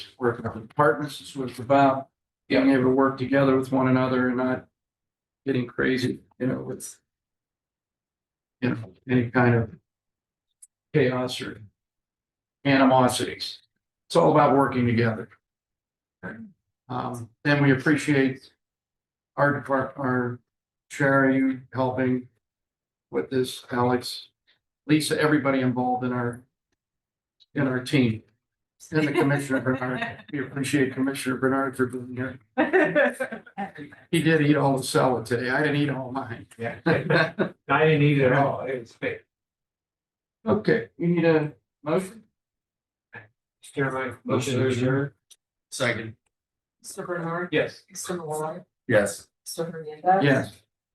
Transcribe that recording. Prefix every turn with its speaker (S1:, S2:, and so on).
S1: working on departments, this was about being able to work together with one another and not getting crazy, you know, with you know, any kind of chaos or animosities. It's all about working together. Um, and we appreciate our depart, our Sherry you helping with this, Alex, Lisa, everybody involved in our in our team. And the Commissioner Bernard, we appreciate Commissioner Bernard for being here. He did eat all the salad today. I didn't eat all mine.
S2: Yeah, I didn't eat it at all. It was big.
S1: Okay, you need a motion?
S2: Steer my
S1: Motion to adjourn.
S3: Second.
S4: Mr. Bernard,
S2: Yes.
S4: Mr. Malloy,
S3: Yes.
S4: Mr. Hernandez.
S1: Yes.